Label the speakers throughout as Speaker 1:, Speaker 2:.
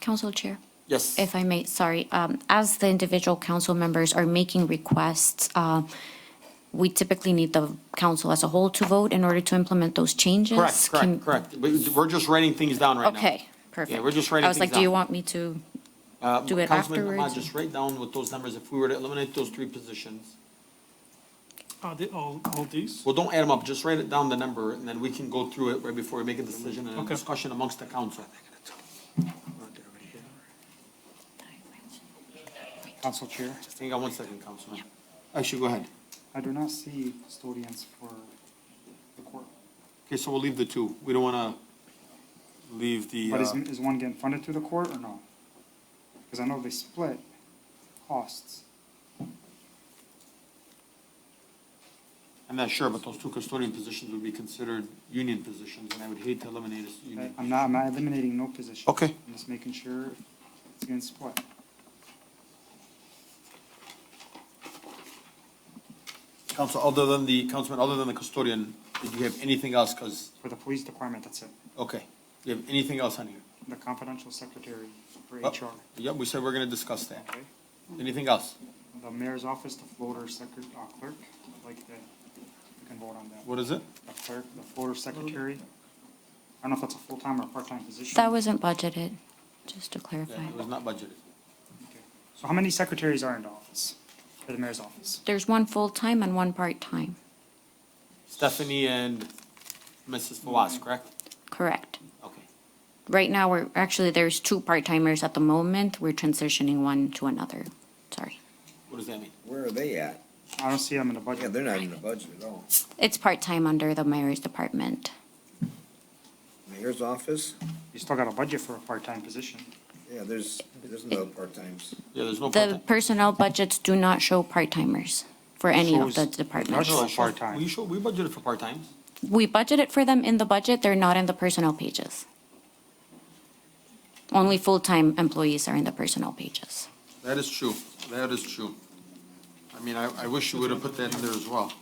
Speaker 1: Council Chair,
Speaker 2: Yes.
Speaker 1: if I may, sorry, um, as the individual council members are making requests, uh, we typically need the council as a whole to vote in order to implement those changes.
Speaker 2: Correct,
Speaker 1: Can-
Speaker 2: correct, correct. We- We're just writing things down right now.
Speaker 1: Okay, perfect.
Speaker 2: Yeah, we're just writing
Speaker 1: I was like,
Speaker 2: things
Speaker 1: do you
Speaker 2: down.
Speaker 1: want me to,
Speaker 2: Uh,
Speaker 1: do it
Speaker 2: Councilman Ahmad,
Speaker 1: afterwards?
Speaker 2: Just write down with those numbers, if we were to eliminate those three positions.
Speaker 3: Are they all, all these?
Speaker 2: Well, don't add them up, just write it down the number, and then we can go through it right before we make a decision and a
Speaker 3: Okay.
Speaker 2: discussion amongst the council.
Speaker 4: Council Chair,
Speaker 2: Hang on one second, Councilman. Actually, go ahead.
Speaker 4: I do not see custodians for the court.
Speaker 2: Okay, so we'll leave the two. We don't want to leave the,
Speaker 4: But is,
Speaker 2: uh,
Speaker 4: is one getting funded through the court or no? Because I know they split costs.
Speaker 2: I'm not sure, but those two custodian positions would be considered union positions, and I would hate to eliminate a s-
Speaker 4: I-
Speaker 2: union.
Speaker 4: I'm not, I'm not eliminating no position.
Speaker 2: Okay.
Speaker 4: I'm just making sure it's getting split.
Speaker 2: Council, other than the, Councilman, other than the custodian, did you have anything else? Because,
Speaker 4: For the police department, that's it.
Speaker 2: okay, do you have anything else on here?
Speaker 4: The confidential secretary for
Speaker 2: Oh,
Speaker 4: HR.
Speaker 2: Yep, we said we're going to discuss that.
Speaker 4: Okay.
Speaker 2: Anything else?
Speaker 4: The mayor's office, the floater secret, uh, clerk, I'd like that, you can vote on that.
Speaker 2: What is it?
Speaker 4: The clerk, the floater secretary. I don't know if that's a full-time or a part-time position.
Speaker 1: that wasn't budgeted, just to
Speaker 2: Yeah,
Speaker 1: clarify.
Speaker 2: it was not budgeted.
Speaker 4: Okay. So how many secretaries are in the office, for the mayor's office?
Speaker 1: There's one full-time and one part-time,
Speaker 2: Stephanie and Mrs. Fawaz, correct?
Speaker 1: correct?
Speaker 2: Okay.
Speaker 1: Right now, we're, actually, there's two part-timers at the moment. We're transitioning one to another. Sorry.
Speaker 2: What does that mean?
Speaker 5: Where are they at?
Speaker 4: I don't see them in the
Speaker 5: Yeah,
Speaker 4: budget.
Speaker 5: they're not in the budget at all.
Speaker 1: It's part-time under the mayor's department.
Speaker 5: Mayor's office,
Speaker 4: You still got a budget for a part-time position.
Speaker 5: yeah, there's, there's no part-times.
Speaker 2: Yeah, there's no
Speaker 1: The
Speaker 2: part-time.
Speaker 1: personnel budgets do not show part-timers for any of the
Speaker 4: Shows-
Speaker 1: departments.
Speaker 4: Shows part-time.
Speaker 2: We show, we budgeted for part-time.
Speaker 1: We budgeted for them in the budget, they're not in the personnel pages. Only full-time employees are in the personnel pages.
Speaker 2: That is true. That is true. I mean, I, I wish you would have put that in there as well.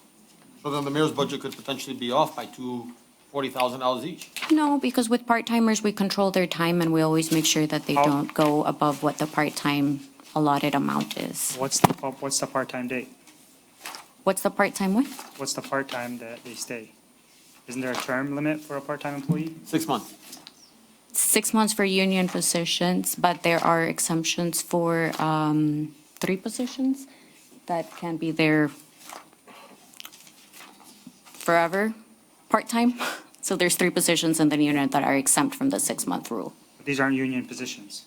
Speaker 2: So then the mayor's budget could potentially be off by two, forty thousand dollars each.
Speaker 1: No, because with part-timers, we control their time and we always make sure that they
Speaker 4: How-
Speaker 1: don't go above what the part-time allotted amount is.
Speaker 4: What's the, pa- what's the part-time date?
Speaker 1: What's the part-time with?
Speaker 4: What's the part-time that they stay? Isn't there a term limit for a part-time employee?
Speaker 2: Six months.
Speaker 1: six months for union positions, but there are exemptions for um, three positions that can be there forever, part-time. So there's three positions in the union that are exempt from the six-month rule.
Speaker 4: But These aren't union positions.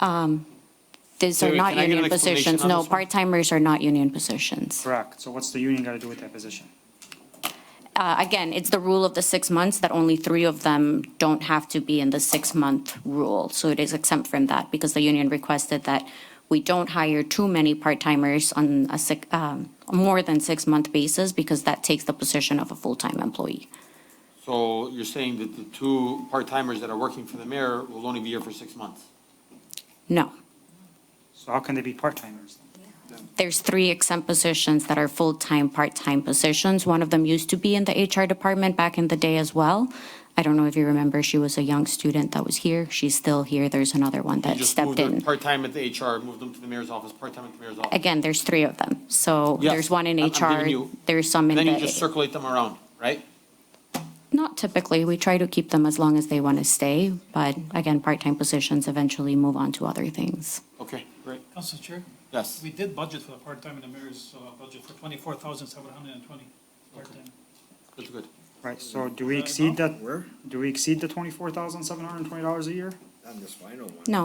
Speaker 1: Um, These
Speaker 2: Wait,
Speaker 1: are
Speaker 2: wait,
Speaker 1: not
Speaker 2: can I get an
Speaker 1: union
Speaker 2: explanation
Speaker 1: positions.
Speaker 2: on
Speaker 1: No,
Speaker 2: this one?
Speaker 1: part-timers are not union positions.
Speaker 4: Correct. So what's the union got to do with that position?
Speaker 1: Uh, Again, it's the rule of the six months that only three of them don't have to be in the six-month rule. So it is exempt from that because the union requested that we don't hire too many part-timers on a six, um, more than six-month basis because that takes the position of a full-time employee.
Speaker 2: So you're saying that the two part-timers that are working for the mayor will only be here for six months?
Speaker 1: No,
Speaker 4: So how can they be part-timers?
Speaker 1: there's three exempt positions that are full-time, part-time positions. One of them used to be in the HR department back in the day as well. I don't know if you remember, she was a young student that was here. She's still here. There's another one
Speaker 2: You
Speaker 1: that
Speaker 2: just
Speaker 1: stepped
Speaker 2: moved them
Speaker 1: in.
Speaker 2: Part-time at the HR, moved them to the mayor's office, part-time at the mayor's office.
Speaker 1: Again, there's three of them. So
Speaker 2: Yes,
Speaker 1: there's one in
Speaker 2: I'm- I'm
Speaker 1: HR,
Speaker 2: giving you-
Speaker 1: there's some in
Speaker 2: Then you just
Speaker 1: the,
Speaker 2: circulate them around, right?
Speaker 1: not typically, we try to keep them as long as they want to stay. But again, part-time positions eventually move on to other things.
Speaker 2: Okay, great.
Speaker 3: Council Chair,
Speaker 2: Yes.
Speaker 3: we did budget for the part-time in the mayor's uh, budget for twenty-four thousand seven hundred and twenty part-time.
Speaker 2: That's good.
Speaker 4: Right, so do we exceed that,
Speaker 5: Where?
Speaker 4: do we exceed the twenty-four thousand seven hundred and twenty dollars a year?
Speaker 5: Not in this final one.
Speaker 1: No,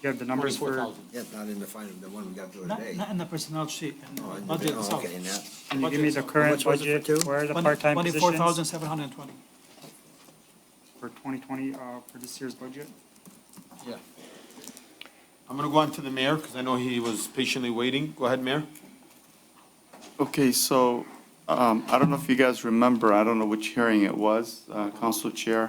Speaker 4: You have the numbers
Speaker 2: Forty-four
Speaker 4: for,
Speaker 2: thousand.
Speaker 5: Yeah, not in the final, the one we got the other
Speaker 3: Not,
Speaker 5: day.
Speaker 3: not in the personnel sheet, in
Speaker 5: Oh,
Speaker 3: the
Speaker 5: in the-
Speaker 3: budget
Speaker 5: oh,
Speaker 3: itself.
Speaker 5: Okay, in that.
Speaker 4: can you give me the current
Speaker 5: much was it
Speaker 4: budget
Speaker 5: for two?
Speaker 4: Where the part-time positions?
Speaker 3: Twenty-four thousand seven hundred and twenty.
Speaker 4: For twenty twenty, uh, for this year's budget?
Speaker 2: Yeah. I'm gonna go on to the mayor, because I know he was patiently waiting. Go ahead, mayor.
Speaker 6: Okay, so um, I don't know if you guys remember, I don't know which hearing it was, uh, Council Chair,